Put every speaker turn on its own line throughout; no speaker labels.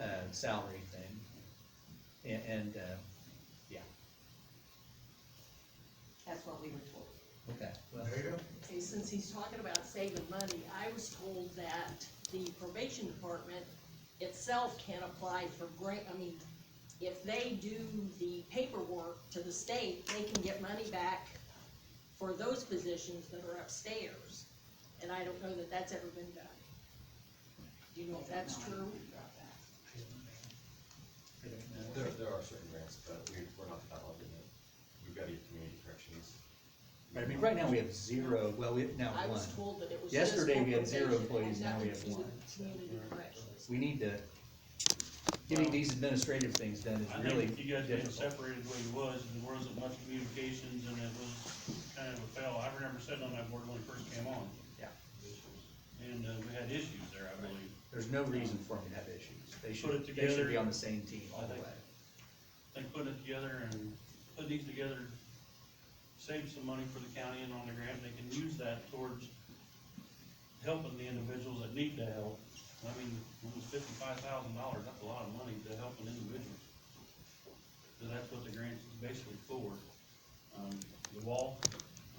uh, salary thing. A- And, uh,
That's what we were told.
okay, well,
There you go.
Okay, since he's talking about saving money, I was told that the probation department itself can apply for grant, I mean, if they do the paperwork to the state, they can get money back for those positions that are upstairs. And I don't know that that's ever been done. Do you know if that's true?
I don't know.
There, there are certain grants, but we, we're not developing it. We've got to get community corrections.
But I mean, right now we have zero, well, we have now
I
one.
was told that it was just
Yesterday, we had zero
probation and
employees, now we
nothing
have
to do with
one, so.
Community corrections.
We need to, getting these administrative things done
I
is really
think if you guys didn't
difficult.
separated the way you was, and there wasn't much communications, and it was kind of a fail. I remember sitting on that board when it first came on.
Yeah.
And, uh, we had issues there, I believe.
There's no reason for them to have issues. They
Put
should,
it
they should be on
together.
the same team all the way.
They put it together and put these together, save some money for the county and on the grant, they can use that towards helping the individuals that need the help. I mean, it was fifty-five thousand dollars, that's a lot of money to help an individual. So that's what the grant is basically for. Um, the wall,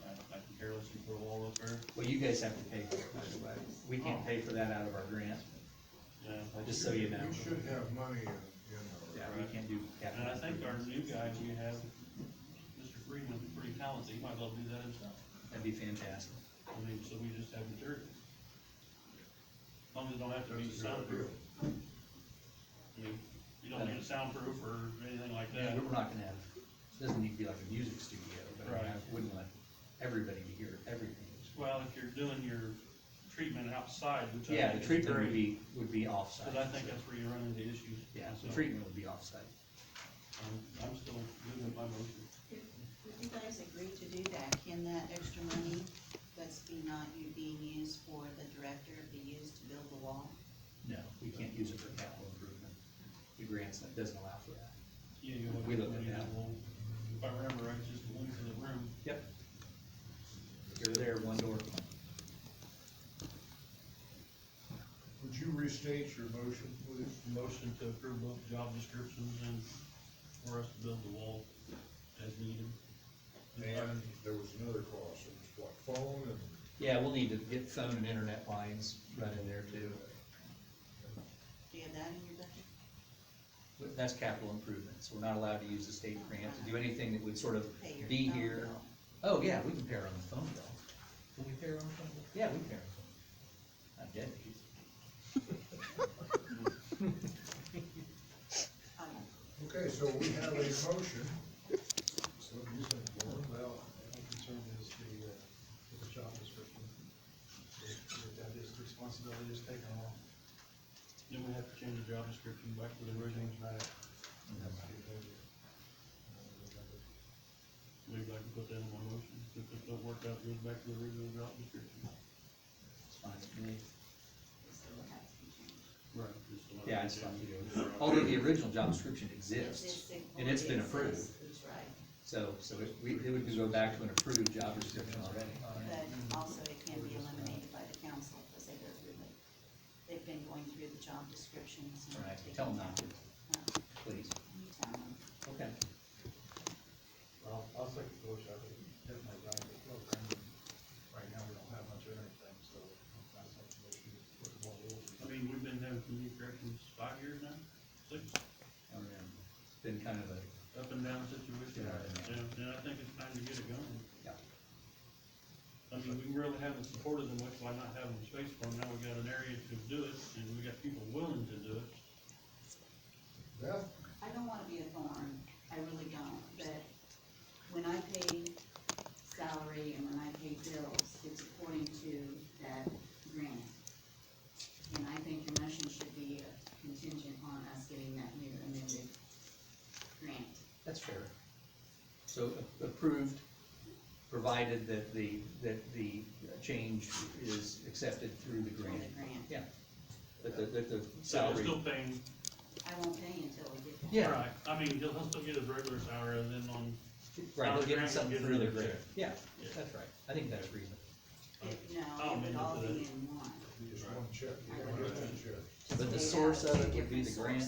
I, I can care less if you put a wall up there,
Well, you guys have to pay for it, by the way. We
Oh.
can't pay for that out of our grant,
yeah.
just so you know.
We should have money in, in
Yeah,
our.
we can't do capital.
And I think our new guy we have, Mr. Freeman's pretty talented, he might be able to do that himself.
That'd be fantastic.
I mean, so we just have materials. As long as it don't have to be
That's a good
soundproof,
deal.
I mean, you don't need a soundproof or anything like
Yeah,
that.
but we're not gonna have, it doesn't need to be like a music studio, but I mean, I wouldn't want everybody to hear everything.
Well, if you're doing your treatment outside, which I
Yeah,
think
the
is
treatment would
great,
be, would be offsite.
Cause I think that's where you run into issues.
Yeah, the
So,
treatment would be offsite.
I'm, I'm still good with my motion.
If if you guys agree to do that, can that extra money that's be not you being used for the director be used to build the wall?
No, we can't use it for capital improvement. The grants, that doesn't allow for that.
Yeah, you look.
We looked at
you
that.
know, If I remember right, just the one for the room,
Yep. You're there, one door.
Would you restate your motion, please?
motion to approve both job descriptions and for us to build the wall as needed.
And there was another cost, it was what, phone and,
Yeah, we'll need to get phone and internet lines run in there too.
Do you have that in your budget?
But That's capital improvements. We're not allowed to use the state grant to do anything that would sort of
Pay your
be
phone
here.
bill.
Oh, yeah, we can pair on the phone bill. Can we pair on the phone bill? Yeah, we can pair on the phone. bill. I'm dead.
I don't know.
okay, so we have a motion. What do you think, Warren?
Well, my concern is the, uh, with the job description, that- that is the responsibility is taken on,
Then we have to change the job description back to the original,
change that. That's the behavior. Uh,
maybe I can put that in my motion, if it don't work out, goes back to the original job description.
It's fine with me.
It still has to be changed.
Right. just allow
Yeah, it's
it
fine
to-
Oh. with you. Although the original job description
This
exists,
thing
and it's been
already
approved.
exists, Right,
So, so it, we, it would go back to an approved job description already.
but also it can be eliminated by the council as they go through it. They've been going through the job descriptions and.
All right,
taking
tell them not to,
down. No,
please.
Uh, you tell them.
Okay.
Well, I'll second the motion, I think definitely right, but well, granted, right now we don't have much of anything, so I second the motion, put the ball
I mean, we've been having community corrections five years now, six,
Um, It's been kind of a,
up and down situation,
Yeah.
and, and I think it's time to get it going.
Yeah.
I mean, we really haven't supported them much by not having the space for them, now we got an area to do it, and we got people willing to do it.
Beth?
I don't wanna be a thorn, I really don't, but when I pay salary and when I pay bills, it's according to that grant. And I think your motion should be contingent on us getting that new amended grant.
that's fair. So a- approved, provided that the, that the change is accepted through the
for
grant.
The grant,
Yeah. That the, that the
So we're
salary,
still paying,
I won't pay until we get that.
Yeah.
right, I mean, he'll, he'll still get his regular salary, and then on,
right, they're
Now the
getting
grant
something
gives
through the
them the
grant.
check.
Yeah,
Yeah.
that's right. I think that's reasonable.
It-
I'll
No, it would
amend it
all be
to that.
in one.
Just one check,
I
just
would-
one check.
But the
They
source
have
of
two
it would be
different
the grant.
sources.